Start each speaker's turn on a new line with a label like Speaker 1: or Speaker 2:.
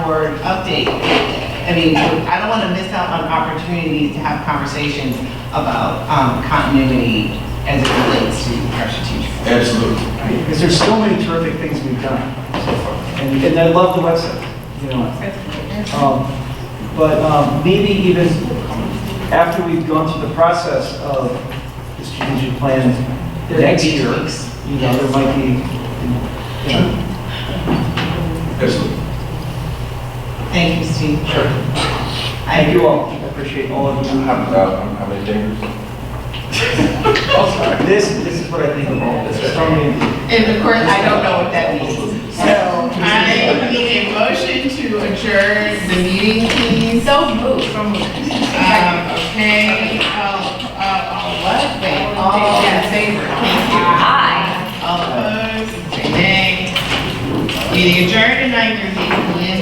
Speaker 1: board update. I mean, I don't want to miss out on opportunities to have conversations about um, continuity as it relates to our strategic. plan.
Speaker 2: Absolutely.
Speaker 3: Because there's so many terrific things we've done so far. And, and I love the website, you know. Um, But um, maybe even after we've gone through the process of the strategic plan
Speaker 1: There may
Speaker 3: next
Speaker 1: be
Speaker 3: year,
Speaker 1: tweaks.
Speaker 3: you know, there might be, you know,
Speaker 2: Absolutely.
Speaker 1: Thank you, Steve.
Speaker 3: Sure.
Speaker 1: I
Speaker 3: Thank you all, I appreciate all of you.
Speaker 2: How many fingers?
Speaker 3: This, this is what I think of all, this is from me.
Speaker 1: And of course, I don't know what that means. So I need a motion to adjourn the meeting, please.
Speaker 4: So moved from.
Speaker 1: Um, okay, uh, uh, all what? Wait, all in favor?
Speaker 4: Aye.
Speaker 1: All opposed? Say nay. Meeting adjourned at nine thirty P M.